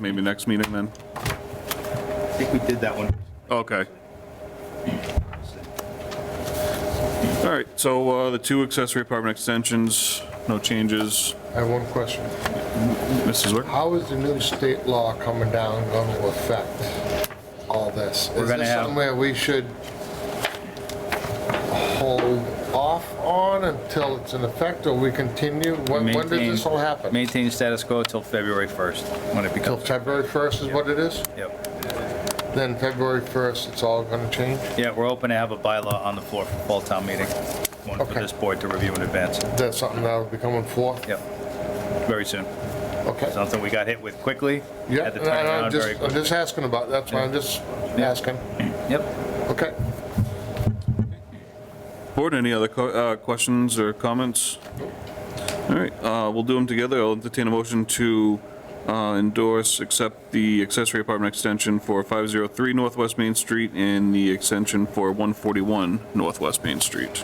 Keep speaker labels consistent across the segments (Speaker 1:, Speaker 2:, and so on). Speaker 1: Maybe next meeting then?
Speaker 2: I think we did that one.
Speaker 1: Okay. All right, so uh, the two accessory apartment extensions, no changes.
Speaker 3: I have one question.
Speaker 1: Mrs. Zwick?
Speaker 3: How is the new state law coming down going to affect all this?
Speaker 2: We're gonna
Speaker 3: Is this
Speaker 2: have-
Speaker 3: somewhere we should hold off on until it's in effect, or we continue? When when does
Speaker 2: Maintain-
Speaker 3: this all happen?
Speaker 2: Maintain status quo till February 1st, when it
Speaker 3: Till
Speaker 2: becomes,
Speaker 3: February 1st is what it is?
Speaker 2: yep.
Speaker 3: Then February 1st, it's all going to change?
Speaker 2: Yeah, we're open to have a bylaw on the floor for fall town meeting, one for
Speaker 3: Okay.
Speaker 2: this board to review in advance.
Speaker 3: That's something that'll be coming forth?
Speaker 2: Yep, very soon.
Speaker 3: Okay.
Speaker 2: Something we got hit with quickly,
Speaker 3: Yeah,
Speaker 2: had to
Speaker 3: and
Speaker 2: turn
Speaker 3: I-
Speaker 2: around very
Speaker 3: I'm just, uh, I'm
Speaker 2: quickly.
Speaker 3: just asking about, that's why I'm just asking.
Speaker 2: Yep,
Speaker 3: Okay.
Speaker 1: Board, any other co- uh, questions or comments? All right, uh, we'll do them together. I'll entertain a motion to uh, endorse, accept the accessory apartment extension for 503 Northwest Main Street and the extension for 141 Northwest Main Street.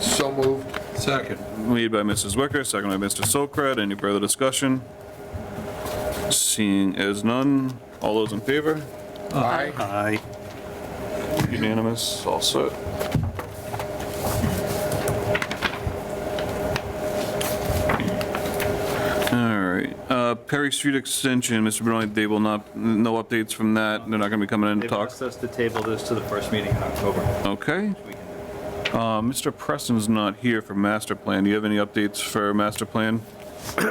Speaker 3: So moved.
Speaker 4: Second.
Speaker 1: Made by Mrs. Wicker, second by Mr. Sokrat. Any further discussion? Seeing as none, all those in favor?
Speaker 3: Aye.
Speaker 4: Aye.
Speaker 1: Unanimous, all set. All right, uh, Perry Street Extension, Mr. Benoit, they will not, no updates from that. They're not gonna be coming in to
Speaker 2: they've
Speaker 1: talk.
Speaker 2: asked us to table this to the first meeting in October.
Speaker 1: Okay.
Speaker 2: We can-
Speaker 1: Uh, Mr. Preston's not here for master plan. Do you have any updates for master plan?
Speaker 2: We've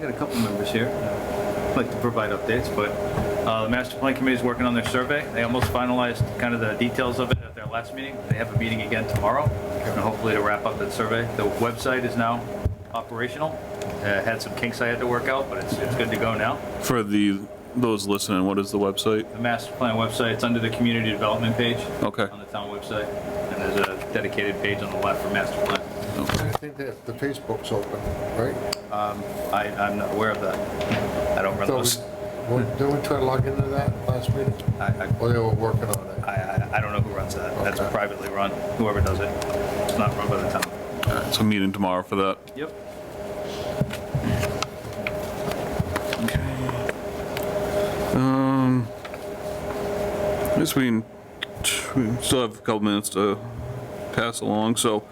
Speaker 2: got a couple members here who'd like to provide updates, but uh, the master plan committee is working on their survey. They almost finalized kind of the details of it at their last meeting. They have a meeting again tomorrow, and hopefully to wrap up that survey. The website is now operational. Uh, Had some kinks I had to work out, but it's, it's good to go now.
Speaker 1: For the, those listening, what is the website?
Speaker 2: The master plan website, it's under the community development page
Speaker 1: Okay.
Speaker 2: on the town website, and there's a dedicated page on the left for master plan.
Speaker 3: I think that the Facebook's open, right?
Speaker 2: I, I'm not aware of that. I don't run
Speaker 3: So,
Speaker 2: those.
Speaker 3: we- well, didn't we try to log into that last meeting?
Speaker 2: I- I-
Speaker 3: Or they were working on it?
Speaker 2: I, I, I don't know who runs that. That's
Speaker 3: Okay.
Speaker 2: privately run, whoever does it. It's not run by the town.
Speaker 1: So meeting tomorrow for that.
Speaker 2: Yep.
Speaker 1: I guess we can- we still have a couple minutes to pass along, so,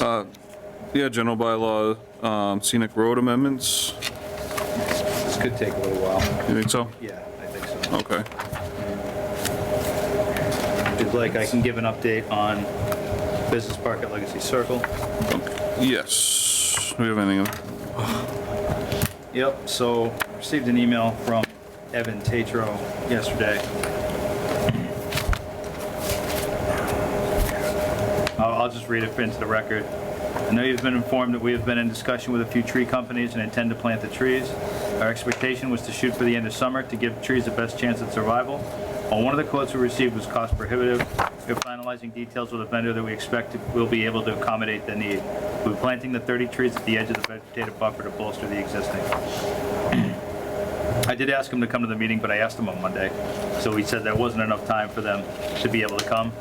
Speaker 1: uh, yeah, general bylaw, um, scenic road amendments,
Speaker 2: This could take a little while.
Speaker 1: you think so?
Speaker 2: Yeah, I think so.
Speaker 1: Okay,
Speaker 2: If you'd like, I can give an update on Business Park at Legacy Circle.
Speaker 1: yes, do we have anything?
Speaker 2: Yep, so received an email from Evan Tatro yesterday. I'll, I'll just read it into the record. I know you've been informed that we have been in discussion with a few tree companies and intend to plant the trees. Our expectation was to shoot for the end of summer to give trees the best chance at survival. While one of the quotes we received was cost prohibitive, we're finalizing details with a vendor that we expect to- will be able to accommodate the need. We're planting the 30 trees at the edge of the vegetative buffer to bolster the existing. I did ask him to come to the meeting, but I asked him on Monday, so he said there wasn't enough time for them to be able to come.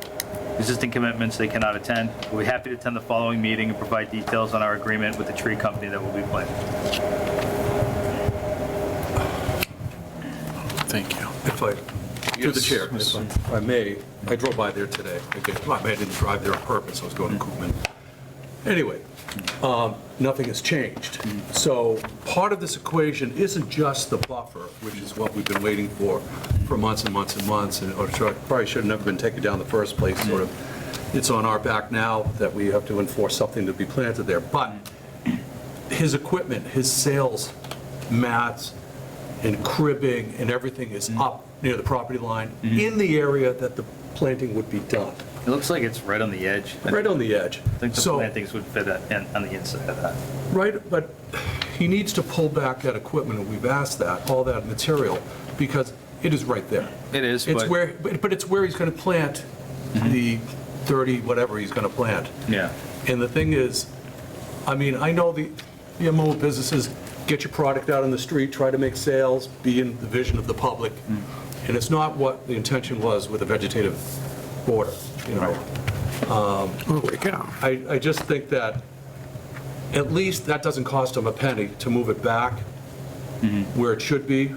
Speaker 2: Existing commitments, they cannot attend. We'll be happy to attend the following meeting and provide details on our agreement with the tree company that will be planted.
Speaker 1: Thank you.
Speaker 4: If I, through the chair, if I may, I drove by there today. I did- well, I didn't drive there on purpose, I was going to Coopman. Anyway, um, nothing has changed. So part of this equation isn't just the buffer, which is what we've been waiting for, for months and months and months, and or should- probably should have never been taken down in the first place, sort of. It's on our back now that we have to enforce something to be planted there. But his equipment, his sales mats and cribbing and everything is
Speaker 2: Mm-hmm.
Speaker 4: up near the property line in the area that the planting would be done,
Speaker 2: It looks like it's right on the edge.
Speaker 4: right on the edge.
Speaker 2: I think the
Speaker 4: So-
Speaker 2: plantings would fit that in- on the inside of that.
Speaker 4: Right, but he needs to pull back that equipment, and we've asked that, all that material, because it is right there.
Speaker 2: It is,
Speaker 4: It's
Speaker 2: but- Mm-hmm.
Speaker 4: where, but but it's where he's going to plant the 30, whatever he's going to plant.
Speaker 2: Yeah.
Speaker 4: And the thing is, I mean, I know the, the MO businesses, get your product out on the street, try to make sales, be in the vision of the public, and it's not what the intention was with a vegetative border, you know? Um, I, I just think that, at least that doesn't cost them a penny to move it back where it should be,